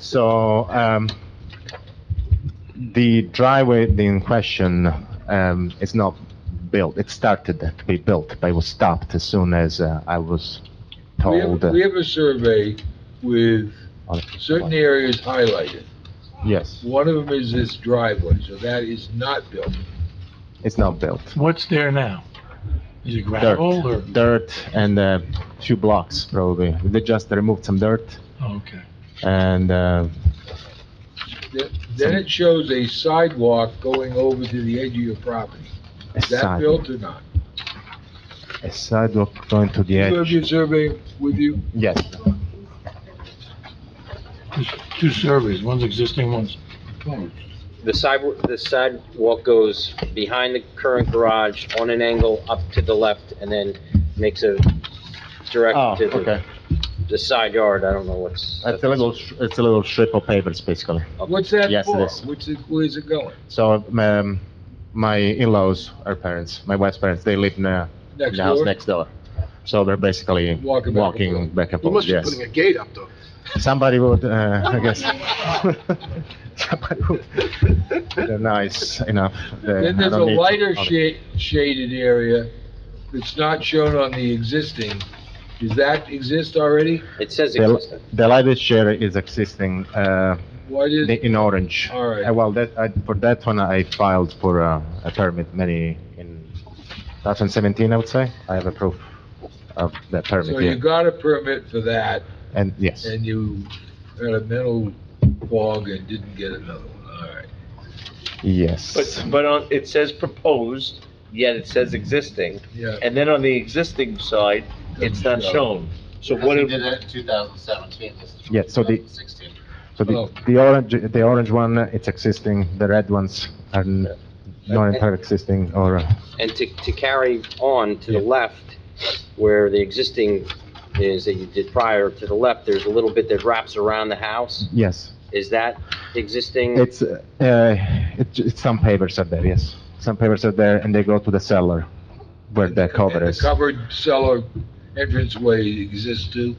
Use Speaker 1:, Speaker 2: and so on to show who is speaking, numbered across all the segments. Speaker 1: So, um, the driveway in question, um, is not built. It started to be built, but it was stopped as soon as uh, I was
Speaker 2: We have,
Speaker 1: told. uh,
Speaker 2: we have a survey with
Speaker 1: on-
Speaker 2: certain areas highlighted.
Speaker 1: Yes,
Speaker 2: One of them is this driveway, so that is not built.
Speaker 1: it's not built.
Speaker 3: What's there now? Is it
Speaker 1: Dirt,
Speaker 3: gravel or?
Speaker 1: dirt and a few blocks probably. They just removed some dirt
Speaker 3: Okay.
Speaker 1: and, uh,
Speaker 2: Th- Then it shows a sidewalk going over to the edge of your property.
Speaker 1: a
Speaker 2: Is that
Speaker 1: sidewalk,
Speaker 2: built or not?
Speaker 1: a sidewalk going to the
Speaker 2: You have
Speaker 1: edge.
Speaker 2: your survey with you?
Speaker 1: Yes,
Speaker 3: There's two surveys, one's existing, one's proposed.
Speaker 4: The side, the sidewalk goes behind the current garage on an angle up to the left and then makes a
Speaker 1: oh,
Speaker 4: direct to the,
Speaker 1: okay.
Speaker 4: the side yard. I don't know what's.
Speaker 1: It's a little, sh- it's a little strip of papers basically.
Speaker 2: What's that
Speaker 1: Yes, it
Speaker 2: for?
Speaker 1: is.
Speaker 2: What's it, where's it going?
Speaker 1: So, um, my in-laws, her parents, my wife's parents, they live in a, in
Speaker 2: Next
Speaker 1: the house
Speaker 2: door?
Speaker 1: next door. So they're basically
Speaker 2: Walking back and
Speaker 1: walking
Speaker 2: forth.
Speaker 1: back and
Speaker 5: You
Speaker 1: forth,
Speaker 5: must be
Speaker 1: yes.
Speaker 5: putting a gate up though.
Speaker 1: Somebody would, uh, I guess. Somebody would. They're nice enough. They-
Speaker 2: Then
Speaker 1: I
Speaker 2: there's a
Speaker 1: don't need-
Speaker 2: lighter
Speaker 1: okay.
Speaker 2: shade, shaded area that's not shown on the existing. Does that exist already?
Speaker 4: It says
Speaker 1: The
Speaker 4: existing.
Speaker 1: the lighter shade is existing, uh,
Speaker 2: What is,
Speaker 1: the- in orange.
Speaker 2: all
Speaker 1: Uh,
Speaker 2: right,
Speaker 1: Well, that, I, for that one, I filed for uh, a permit many in 2017, I would say. I have a proof of that
Speaker 2: so
Speaker 1: permit,
Speaker 2: you
Speaker 1: yeah.
Speaker 2: got a permit for that,
Speaker 1: And, yes.
Speaker 2: and you had a mental fog and didn't get another one, all right.
Speaker 1: Yes.
Speaker 6: But, but on, it says proposed, yet it says existing,
Speaker 2: Yeah,
Speaker 6: and then on the existing side, it's not shown. So what,
Speaker 7: Because
Speaker 6: if-
Speaker 7: we did it in 2017, this is from
Speaker 1: Yeah, so the-
Speaker 7: 2016.
Speaker 1: so
Speaker 2: oh.
Speaker 1: the, the orange, the orange one, uh, it's existing, the red ones are n- not entirely existing or, uh,
Speaker 4: And to, to carry on to the
Speaker 1: Yeah.
Speaker 4: left, where the existing is that you did prior, to the left, there's a little bit that wraps around the house.
Speaker 1: yes.
Speaker 4: Is that existing?
Speaker 1: It's, uh, uh, it, j- it's some papers are there, yes. Some papers are there and they go to the cellar where the cover
Speaker 2: And
Speaker 1: is.
Speaker 2: The covered cellar entranceway exists too?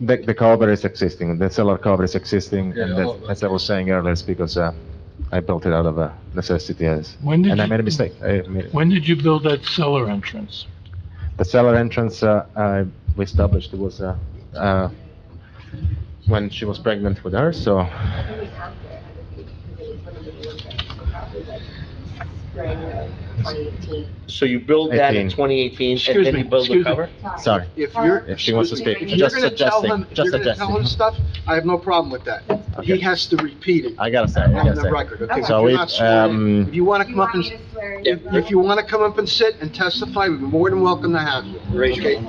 Speaker 1: The, the cover is existing, the cellar cover is existing
Speaker 2: Yeah,
Speaker 1: and
Speaker 2: oh,
Speaker 1: that's- as I was saying earlier, it's because, uh, I built it out of uh, necessity as,
Speaker 3: When did
Speaker 1: and I made a
Speaker 3: you,
Speaker 1: mistake. I admit it.
Speaker 3: when did you build that cellar entrance?
Speaker 1: The cellar entrance, uh, I, we established it was, uh, uh, when she was pregnant with her, so
Speaker 6: so you build that in
Speaker 1: 18.
Speaker 6: 2018, and
Speaker 3: Excuse
Speaker 6: then
Speaker 3: me,
Speaker 6: you build the
Speaker 3: excuse me.
Speaker 6: cover?
Speaker 1: Sorry,
Speaker 5: If you're,
Speaker 1: if she wants to speak,
Speaker 5: if you're
Speaker 1: just
Speaker 5: gonna tell
Speaker 1: suggesting,
Speaker 5: him, if
Speaker 1: just
Speaker 5: you're gonna tell him
Speaker 1: suggesting.
Speaker 5: stuff, I have no problem with that. He
Speaker 1: Okay.
Speaker 5: has to repeat it
Speaker 1: I gotta say, I
Speaker 5: on the
Speaker 1: gotta
Speaker 5: record, okay?
Speaker 1: say.
Speaker 5: If
Speaker 1: So
Speaker 5: you're
Speaker 1: we,
Speaker 5: not sworn in,
Speaker 1: um,
Speaker 5: If you wanna
Speaker 8: You
Speaker 5: come up
Speaker 8: want
Speaker 5: and,
Speaker 8: me to swear in?
Speaker 5: if if you wanna come up and sit and testify, we're more than welcome to have you.
Speaker 4: Raise your,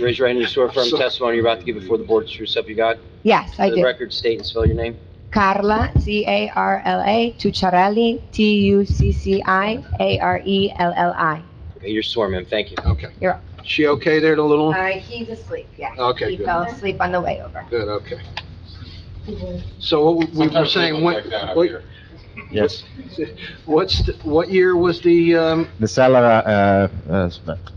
Speaker 4: raise your hand, you swear firm
Speaker 5: So-
Speaker 4: testimony you're about to give before the board, true self you got?
Speaker 8: Yes,
Speaker 4: For
Speaker 8: I
Speaker 4: the
Speaker 8: do.
Speaker 4: record, state and spell your name.
Speaker 8: Carla, C-A-R-L-A, Tucciarelli, E T-U-C-C-I-A-R-E-L-L-I.
Speaker 4: Okay, You're sworn, ma'am, thank you.
Speaker 5: Okay.
Speaker 8: You're-
Speaker 5: She okay there, the little one?
Speaker 8: Uh, he's asleep, yeah.
Speaker 5: Okay,
Speaker 8: He
Speaker 5: good.
Speaker 8: fell asleep on the way over.
Speaker 5: Good, okay. So what we were
Speaker 7: Sometimes they
Speaker 5: saying,
Speaker 7: look
Speaker 5: what,
Speaker 7: like that out
Speaker 5: what-
Speaker 7: here.
Speaker 1: yes,
Speaker 5: what's, the- what year was the, um,
Speaker 1: the cellar, uh, uh,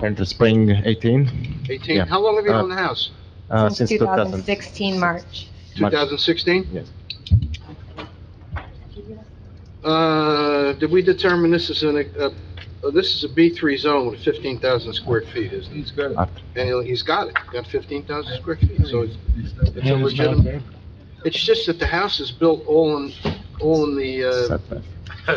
Speaker 1: entered spring eighteen,
Speaker 5: eighteen?
Speaker 1: Yeah.
Speaker 5: How long have you
Speaker 1: Uh,
Speaker 5: owned the house?
Speaker 1: uh, since two thousand.
Speaker 8: 2016 March.
Speaker 5: Two thousand sixteen?
Speaker 1: Yes.
Speaker 5: Uh, did we determine this is an, uh, uh, this is a B three zone with fifteen thousand square feet, isn't it?
Speaker 2: He's got it.
Speaker 5: And he'll- he's got it, He's got fifteen thousand square feet, so it's,
Speaker 2: He's not-
Speaker 5: it's a
Speaker 3: And it's not
Speaker 5: legitimate,
Speaker 3: there.
Speaker 5: it's just that the house is built all in, all in the, uh,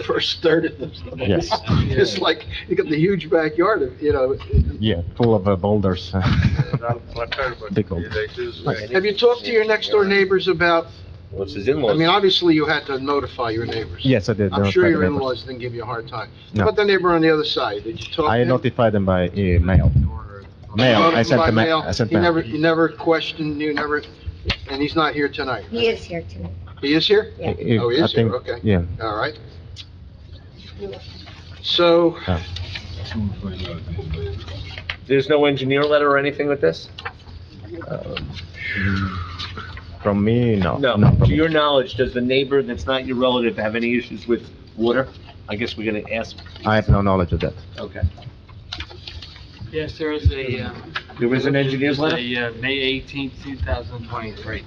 Speaker 5: first third of the.
Speaker 1: Yes,
Speaker 5: It's like, you got the huge backyard of, you know,
Speaker 1: yeah, full of uh, boulders. Big old.
Speaker 5: have you talked to your next door neighbors about,
Speaker 6: What's his
Speaker 5: I mean,
Speaker 6: in-laws?
Speaker 5: obviously you had to notify your neighbors.
Speaker 1: Yes, I did.
Speaker 5: I'm
Speaker 1: notify
Speaker 5: sure
Speaker 1: the
Speaker 5: your
Speaker 1: neighbors.
Speaker 5: in-laws didn't give you a hard time.
Speaker 1: No.
Speaker 5: How about the neighbor on the other side? Did you talk to
Speaker 1: I
Speaker 5: him?
Speaker 1: notified them by email. Mail, I sent
Speaker 5: By
Speaker 1: them,
Speaker 5: mail.
Speaker 1: I sent
Speaker 5: He never,
Speaker 1: them.
Speaker 5: he never questioned, you never, and he's not here tonight.
Speaker 8: He is here tonight.
Speaker 5: He is here?
Speaker 8: Yeah.
Speaker 5: Oh, he
Speaker 1: I
Speaker 5: is here,
Speaker 1: think-
Speaker 5: okay.
Speaker 1: Yeah,
Speaker 5: All right. So,
Speaker 6: There's no engineer letter or anything with this?
Speaker 1: from me, no.
Speaker 6: No.
Speaker 1: not from
Speaker 6: To
Speaker 1: me.
Speaker 6: your knowledge, does the neighbor that's not your relative have any issues with water? I guess we're gonna ask,
Speaker 1: I have no knowledge of that.
Speaker 6: okay.
Speaker 9: Yes, there is a, uh,
Speaker 6: There was an engineer's letter?
Speaker 9: a, uh, May 18th, 2023.